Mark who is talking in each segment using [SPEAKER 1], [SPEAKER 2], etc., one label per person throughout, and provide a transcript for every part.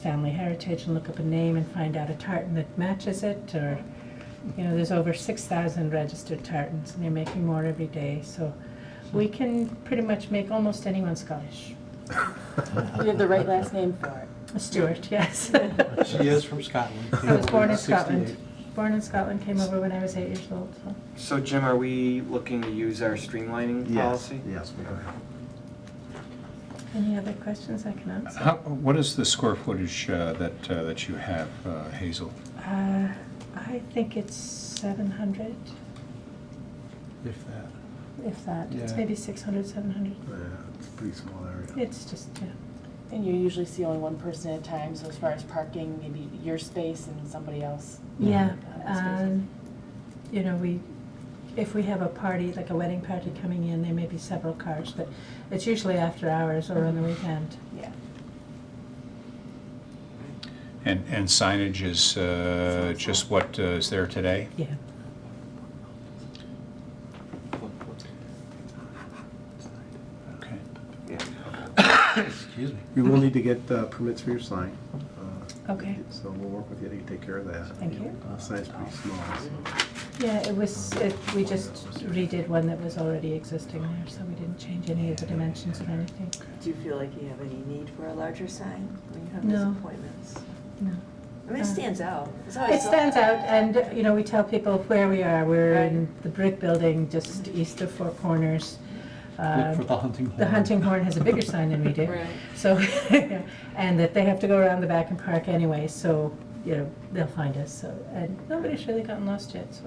[SPEAKER 1] family heritage and look up a name and find out a tartan that matches it, or, you know, there's over six thousand registered tartans, and they're making more every day, so we can pretty much make almost anyone Scottish.
[SPEAKER 2] You have the right last name for it.
[SPEAKER 1] Stuart, yes.
[SPEAKER 3] She is from Scotland.
[SPEAKER 1] I was born in Scotland. Born in Scotland, came over when I was eight years old, so.
[SPEAKER 4] So Jim, are we looking to use our streamlining
[SPEAKER 5] Yes,
[SPEAKER 4] policy?
[SPEAKER 5] yes, we are.
[SPEAKER 1] Any other questions I can answer?
[SPEAKER 3] Uh-huh.
[SPEAKER 6] How, what is the square footage uh, that, uh, that you have, uh, Hazel?
[SPEAKER 1] Uh, I think it's seven hundred,
[SPEAKER 3] If that.
[SPEAKER 1] if that, it's
[SPEAKER 3] Yeah.
[SPEAKER 1] maybe six hundred, seven hundred.
[SPEAKER 5] Yeah, uh, it's a pretty small area.
[SPEAKER 1] It's just, yeah,
[SPEAKER 2] And you usually see only one person at a time, so as far as parking, maybe your space and somebody else.
[SPEAKER 1] yeah,
[SPEAKER 2] Office spaces.
[SPEAKER 1] um, you know, we, if we have a party, like a wedding party coming in, there may be several cars, but it's usually after hours or on the weekend.
[SPEAKER 2] Yeah.
[SPEAKER 6] And, and signage is uh, just what uh, is there today?
[SPEAKER 1] Yeah.
[SPEAKER 6] Okay.
[SPEAKER 3] Excuse me.
[SPEAKER 5] You will need to get uh, permits for your sign. uh,
[SPEAKER 1] Okay.
[SPEAKER 5] So we'll work with you to take care of that.
[SPEAKER 1] Thank you.
[SPEAKER 5] The sign's pretty small, so.
[SPEAKER 1] Yeah, it was, it, we just redid one that was already existing there, so we didn't change any of the dimensions or anything.
[SPEAKER 7] Do you feel like you have any need for a larger sign when you have these
[SPEAKER 1] No.
[SPEAKER 7] appointments?
[SPEAKER 1] No.
[SPEAKER 7] I mean,
[SPEAKER 1] Uh,
[SPEAKER 7] it stands out. It's always
[SPEAKER 1] It
[SPEAKER 7] so-
[SPEAKER 1] stands out, and, uh, you know, we tell people where we are. We're
[SPEAKER 7] Right.
[SPEAKER 1] in the brick building just east of Four Corners. Uh,
[SPEAKER 3] Look for the hunting horn.
[SPEAKER 1] The hunting horn has a bigger sign than we do.
[SPEAKER 2] Right.
[SPEAKER 1] So, and that they have to go around the back and park anyway, so, you know, they'll find us, so, and nobody's really gotten lost yet, so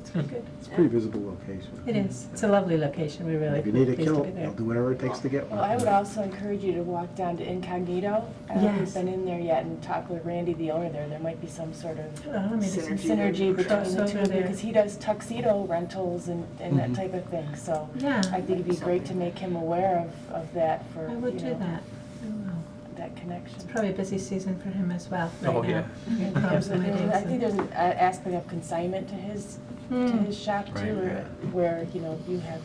[SPEAKER 1] it's been good.
[SPEAKER 2] Hmm.
[SPEAKER 5] It's a pretty visible location.
[SPEAKER 1] It is, it's a lovely location, we really
[SPEAKER 5] If you need a
[SPEAKER 1] pleased to
[SPEAKER 5] kilt,
[SPEAKER 1] be there.
[SPEAKER 5] they'll do whatever it takes to
[SPEAKER 1] Oh,
[SPEAKER 5] get one.
[SPEAKER 2] Well, I would also encourage you to walk down to Incognito. I
[SPEAKER 1] Yes.
[SPEAKER 2] haven't been in there yet and talk with Randy, the owner there. There might be some sort of
[SPEAKER 1] Oh, maybe some
[SPEAKER 7] Synergy.
[SPEAKER 2] synergy between the two
[SPEAKER 1] crossover
[SPEAKER 2] of you
[SPEAKER 1] there.
[SPEAKER 2] because he does tuxedo rentals and, and that
[SPEAKER 3] Mhm.
[SPEAKER 2] type of thing. So
[SPEAKER 1] Mm-hmm. Yeah.
[SPEAKER 2] I think it'd be great to make him aware of, of that for,
[SPEAKER 1] I
[SPEAKER 2] you
[SPEAKER 1] would do
[SPEAKER 2] know, Oh,
[SPEAKER 1] that. I will.
[SPEAKER 2] that connection.
[SPEAKER 1] It's probably a busy season for him as well, right now.
[SPEAKER 4] Oh, yeah.
[SPEAKER 1] He
[SPEAKER 2] There's
[SPEAKER 1] crowds
[SPEAKER 2] a-
[SPEAKER 1] and weddings
[SPEAKER 2] I think
[SPEAKER 1] and-
[SPEAKER 2] there's an a- aspect of consignment to his, to
[SPEAKER 1] Hmm.
[SPEAKER 2] his shop
[SPEAKER 6] Right.
[SPEAKER 2] too, where, where, you know, you have,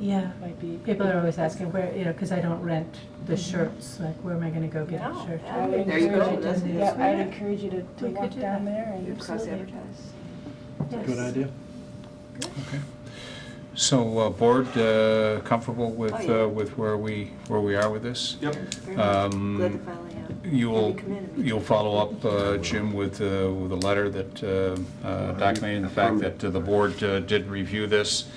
[SPEAKER 1] Yeah,
[SPEAKER 2] might be.
[SPEAKER 1] people are always asking where, you know, because I don't rent the shirts, like where am I gonna go get a
[SPEAKER 7] No,
[SPEAKER 1] shirt?
[SPEAKER 2] I would
[SPEAKER 7] There you
[SPEAKER 2] encourage
[SPEAKER 7] go,
[SPEAKER 2] you to-
[SPEAKER 7] that's-
[SPEAKER 2] Yeah, I'd
[SPEAKER 7] that's-
[SPEAKER 2] encourage you to, to
[SPEAKER 1] We could
[SPEAKER 2] walk
[SPEAKER 1] do
[SPEAKER 2] down
[SPEAKER 1] that.
[SPEAKER 2] there
[SPEAKER 7] You
[SPEAKER 2] and. absolutely.
[SPEAKER 7] cross-advertise.
[SPEAKER 1] Yes.
[SPEAKER 3] Good idea.
[SPEAKER 6] Okay. So, uh, board uh, comfortable with,
[SPEAKER 7] Oh, yeah.
[SPEAKER 6] uh, with where we, where we are with this?
[SPEAKER 3] Yep.
[SPEAKER 7] Very much. Glad to
[SPEAKER 6] Um,
[SPEAKER 7] finally have.
[SPEAKER 6] You'll,
[SPEAKER 7] have you come in and meet.
[SPEAKER 6] you'll follow up, uh, Jim, with, uh, with a letter that uh, uh, documenting the fact that uh, the board uh, did review this,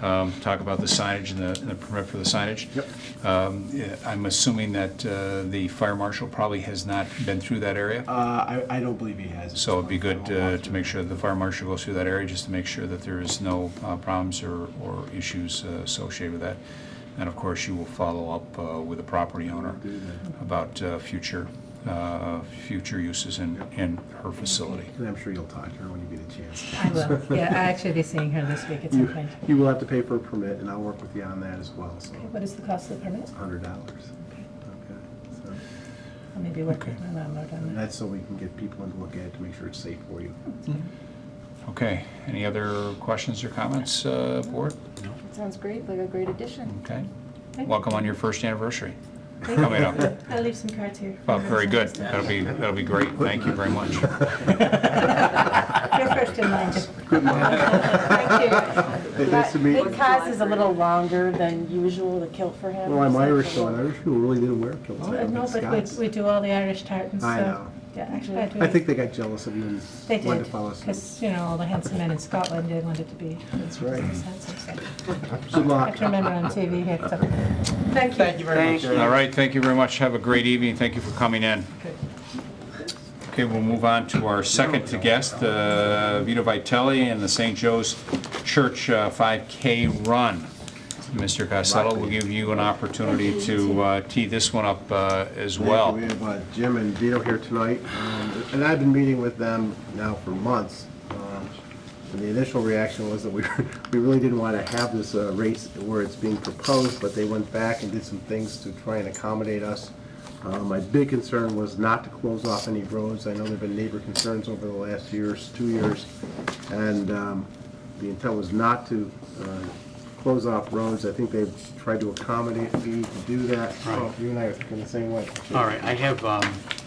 [SPEAKER 6] um, talk about the signage and the and the permit for the signage. Yep. Um, yeah, I'm assuming that uh, the fire marshal probably has not been through that area?
[SPEAKER 5] Uh, I, I don't believe he has. at
[SPEAKER 6] So
[SPEAKER 5] this
[SPEAKER 6] it'd be
[SPEAKER 5] point.
[SPEAKER 6] good
[SPEAKER 5] I won't
[SPEAKER 6] uh,
[SPEAKER 5] walk
[SPEAKER 6] to make
[SPEAKER 5] through.
[SPEAKER 6] sure that the fire marshal goes through that area, just to make sure that there is no uh, problems or, or issues uh, associated with that. And of course, you will follow up uh, with the property owner
[SPEAKER 5] Do that.
[SPEAKER 6] about uh, future, uh, future uses in, in her facility.
[SPEAKER 5] And I'm sure you'll talk to her when you get a chance.
[SPEAKER 1] I will, yeah, I actually be seeing her this week at some
[SPEAKER 5] You,
[SPEAKER 1] point.
[SPEAKER 5] you will have to pay for a permit, and I'll work with you on that as well, so.
[SPEAKER 1] Okay, What is the cost of the permit?
[SPEAKER 5] It's hundred dollars.
[SPEAKER 1] Okay,
[SPEAKER 5] Okay, so,
[SPEAKER 1] I'll maybe work
[SPEAKER 6] Okay.
[SPEAKER 1] with my landlord on
[SPEAKER 5] and
[SPEAKER 1] that.
[SPEAKER 5] that's so we can get people in to look at it to make sure it's safe for you.
[SPEAKER 6] Okay, any other questions or comments, uh, board?
[SPEAKER 2] That Sounds great, like a great addition.
[SPEAKER 6] Okay,
[SPEAKER 1] Thank you.
[SPEAKER 6] welcome on your first anniversary.
[SPEAKER 1] Thank
[SPEAKER 6] Coming
[SPEAKER 1] you.
[SPEAKER 6] up.
[SPEAKER 1] I'll leave some cards here.
[SPEAKER 6] Well, very good, that'll be, that'll be great, thank you very much.
[SPEAKER 1] You're first in line.
[SPEAKER 5] Good
[SPEAKER 2] Thank
[SPEAKER 5] Hey, Nice to meet
[SPEAKER 2] The
[SPEAKER 5] you.
[SPEAKER 2] cause is a little longer than usual, the kilt for him.
[SPEAKER 5] Well, I'm
[SPEAKER 2] so it's a
[SPEAKER 5] Irish, so
[SPEAKER 2] little-
[SPEAKER 5] Irish people really didn't wear kilts. I
[SPEAKER 1] Uh,
[SPEAKER 5] don't
[SPEAKER 1] No,
[SPEAKER 5] think
[SPEAKER 1] but
[SPEAKER 5] Scots.
[SPEAKER 1] we, we do all the Irish tartans, so.
[SPEAKER 5] I know.
[SPEAKER 1] Yeah, actually, I do.
[SPEAKER 5] I think they got jealous of you and
[SPEAKER 1] They
[SPEAKER 5] wanted
[SPEAKER 1] did,
[SPEAKER 5] to follow
[SPEAKER 1] because,
[SPEAKER 5] suit.
[SPEAKER 1] you know, all the handsome men in Scotland, they wanted to be.
[SPEAKER 5] That's right.
[SPEAKER 1] Good
[SPEAKER 5] Good luck.
[SPEAKER 1] I can remember on TV here, so, thank you.
[SPEAKER 3] Thank you very much.
[SPEAKER 6] All right, thank you very much, have a great evening, thank you for coming in. Okay, we'll move on to our second to guest, uh, Vito Vitelli and the St. Joe's Church uh, 5K Run. Mr. Costello, we'll give you an opportunity to uh, tee this one up uh, as
[SPEAKER 5] Thank you.
[SPEAKER 6] well.
[SPEAKER 5] We have uh, Jim and Vito here tonight, um, and I've been meeting with them now for months. um, And the initial reaction was that we, we really didn't want to have this uh, race where it's being proposed, but they went back and did some things to try and accommodate us. Uh, My big concern was not to close off any roads. I know there've been neighbor concerns over the last years, two years, and um, the intent was not to uh, close off roads. I think they've tried to accommodate me to do that. Oh, You and I are thinking the same way.
[SPEAKER 3] All right, I have um,